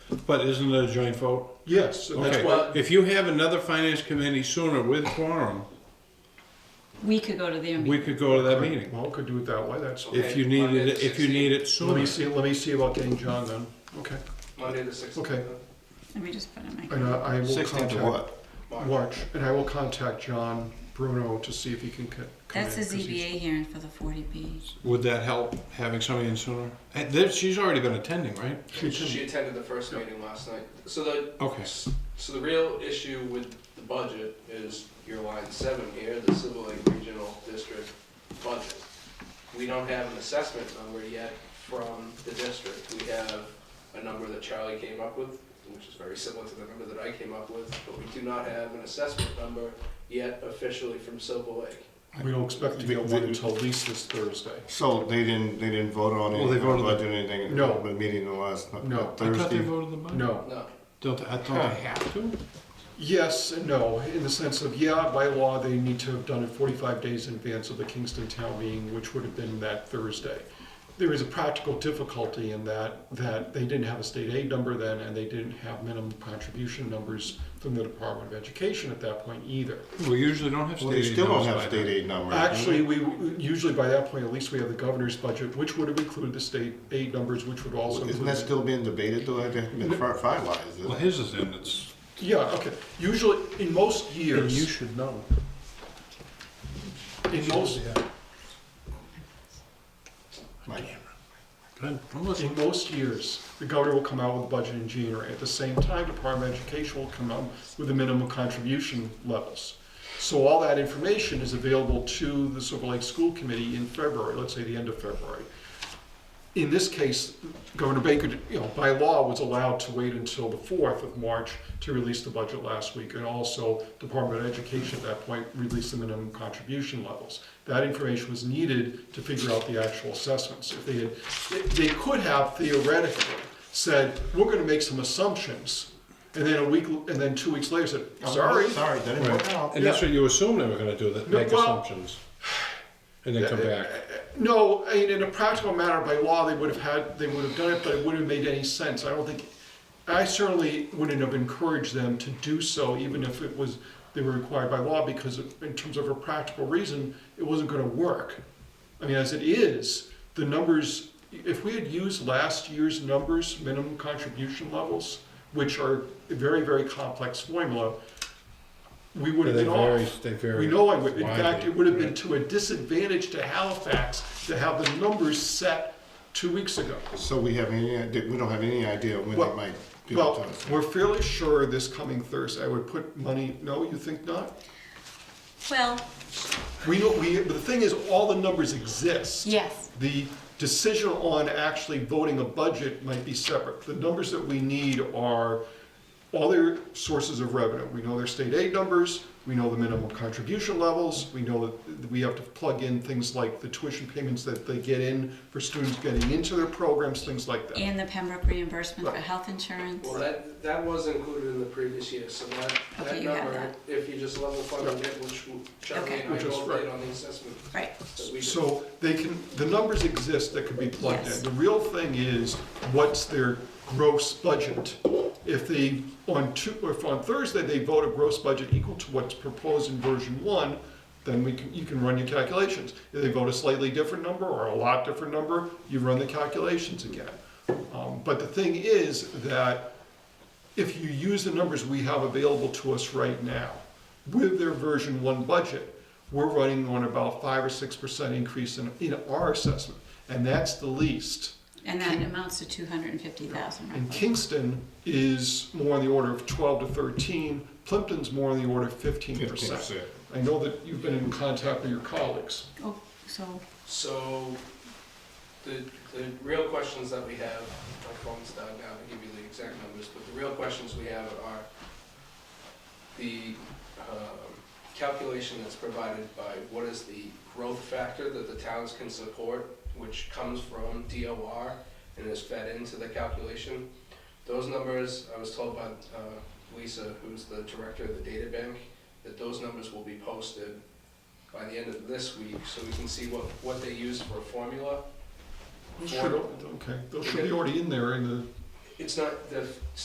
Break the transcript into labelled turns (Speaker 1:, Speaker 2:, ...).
Speaker 1: But isn't it a joint vote?
Speaker 2: Yes, and that's
Speaker 1: Okay.
Speaker 2: why,
Speaker 1: If you have another finance committee sooner with quorum,
Speaker 3: We could go to their
Speaker 1: we
Speaker 3: meeting.
Speaker 1: could go to that meeting.
Speaker 2: well, we could do it that way, that's,
Speaker 1: If you need it, if you need it
Speaker 2: let
Speaker 1: sooner.
Speaker 2: me see, let me see about getting John then, okay.
Speaker 4: Monday the sixteenth.
Speaker 2: Okay.
Speaker 3: Let me just put it in my.
Speaker 2: And uh, I I will
Speaker 5: Sixteenth of
Speaker 2: contact,
Speaker 5: what?
Speaker 2: March, and I will contact John Bruno to see if he can co- come in.
Speaker 3: That's the
Speaker 2: 'cause he's-
Speaker 3: ZBA hearing for the forty B.
Speaker 1: Would that help, having somebody in sooner? And there- she's already been attending, right?
Speaker 2: She's in-
Speaker 4: She attended the first meeting last night. So the,
Speaker 1: Okay.
Speaker 4: so the real issue with the budget is your line seven here, the Civil Lake Regional District budget. We don't have an assessment number yet from the district. We have a number that Charlie came up with, which is very similar to the number that I came up with, but we do not have an assessment number yet officially from Silver Lake.
Speaker 2: We don't expect to get
Speaker 5: The-
Speaker 2: one
Speaker 5: the-
Speaker 2: until at least this Thursday.
Speaker 5: So they didn't, they didn't vote on
Speaker 1: Well,
Speaker 5: it,
Speaker 1: they
Speaker 5: they
Speaker 1: voted
Speaker 5: voted on anything,
Speaker 2: No.
Speaker 5: the meeting the last,
Speaker 2: No.
Speaker 5: no,
Speaker 1: I thought they
Speaker 5: Thursday.
Speaker 1: voted the budget.
Speaker 2: No.
Speaker 4: No,
Speaker 1: Don't, they- I thought they have to?
Speaker 2: Yes and no, in the sense of, yeah, by law, they need to have done it 45 days in advance of the Kingston Town meeting, which would have been that Thursday. There is a practical difficulty in that, that they didn't have a state aid number then, and they didn't have minimum contribution numbers from the Department of Education at that point either.
Speaker 1: We usually don't have state
Speaker 5: Well, they
Speaker 1: aid
Speaker 5: still don't
Speaker 1: laws
Speaker 5: have
Speaker 1: like
Speaker 5: state
Speaker 1: that.
Speaker 5: aid numbers.
Speaker 2: Actually, we, usually by that point, at least we have the governor's budget, which would have included the state aid numbers, which would also include.
Speaker 5: Isn't that still being debated though? That hasn't been fi-
Speaker 2: Mm-hmm.
Speaker 5: finalized, is
Speaker 1: Well,
Speaker 5: it?
Speaker 1: his is in, it's,
Speaker 2: Yeah, okay, usually, in most years.
Speaker 1: should know.
Speaker 2: In most,
Speaker 5: Mike?
Speaker 1: Good. I'm listening.
Speaker 2: In most years, the governor will come out with a budget in January. At the same time, Department of Education will come out with the minimum contribution levels. So all that information is available to the Silver Lake School Committee in February, let's say the end of February. In this case, Governor Baker, you know, by law was allowed to wait until the fourth of March to release the budget last week. And also Department of Education at that point released the minimum contribution levels. That information was needed to figure out the actual assessments. If they had, they they could have theoretically said, we're gonna make some assumptions. And then a week, and then two weeks later said, sorry.
Speaker 5: Oh, Sorry, that didn't work out.
Speaker 1: And that's what you assume they were gonna do, that
Speaker 2: No,
Speaker 1: make
Speaker 2: well-
Speaker 1: assumptions. And then come back.
Speaker 2: No, I mean, in a practical matter, by law, they would have had, they would have done it, but it wouldn't have made any sense. I don't think, I certainly wouldn't have encouraged them to do so, even if it was, they were required by law, because in terms of a practical reason, it wasn't gonna work. I mean, as it is, the numbers, if we had used last year's numbers, minimum contribution levels, which are a very, very complex formula, we would have
Speaker 1: They
Speaker 2: been off.
Speaker 1: vary, they vary.
Speaker 2: We know I would, in
Speaker 1: widely.
Speaker 2: fact, it would have been to a disadvantage to Halifax to have the numbers set two weeks ago.
Speaker 5: So we have any, idea- we don't have any idea when
Speaker 2: Well-
Speaker 5: they might do
Speaker 2: Well,
Speaker 5: it.
Speaker 2: we're fairly sure this coming Thursday, I would put money, no, you think not?
Speaker 3: Well,
Speaker 2: We know, we, but the thing is, all the numbers exist.
Speaker 3: yes,
Speaker 2: The decision on actually voting a budget might be separate. The numbers that we need are all their sources of revenue. We know their state aid numbers, we know the minimum contribution levels, we know that we have to plug in things like the tuition payments that they get in for students getting into their programs, things like that.
Speaker 3: and the Pembroke reimbursement for
Speaker 2: Right.
Speaker 3: health insurance.
Speaker 4: Well, that, that was included in the previous year, so that,
Speaker 3: Okay,
Speaker 4: that
Speaker 3: you have
Speaker 4: number,
Speaker 3: that.
Speaker 4: if you just level funded it, which Charlie
Speaker 3: Okay.
Speaker 4: and I
Speaker 2: Which is
Speaker 4: both
Speaker 2: right.
Speaker 4: did on the assessment.
Speaker 3: Right.
Speaker 4: that we did.
Speaker 2: So they can, the numbers exist that can be plugged
Speaker 3: Yes.
Speaker 2: in. The real thing is, what's their gross budget? If they, on two, if on Thursday, they vote a gross budget equal to what's proposed in version one, then we can, you can run your calculations. If they vote a slightly different number or a lot different number, you run the calculations again. Um, But the thing is that if you use the numbers we have available to us right now, with their version one budget, we're running on about five or six percent increase in, in our assessment, and that's the least.
Speaker 3: And that amounts to two hundred and fifty thousand,
Speaker 2: And
Speaker 3: right?
Speaker 2: Kingston is more on the order of twelve to thirteen, Plimpton's more on the order of fifteen percent.
Speaker 5: 15%.
Speaker 2: I know that you've been in contact with your colleagues.
Speaker 3: Oh, so,
Speaker 4: So, the, the real questions that we have, my phone's died now to give you the exact numbers, but the real questions we have are the um, calculation that's provided by what is the growth factor that the towns can support, which comes from DOR and is fed into the calculation. Those numbers, I was told by uh, Lisa, who's the director of the data bank, that those numbers will be posted by the end of this week, so we can see what, what they used for a formula.
Speaker 2: Sure, okay, those should be already in there in the
Speaker 4: It's not, the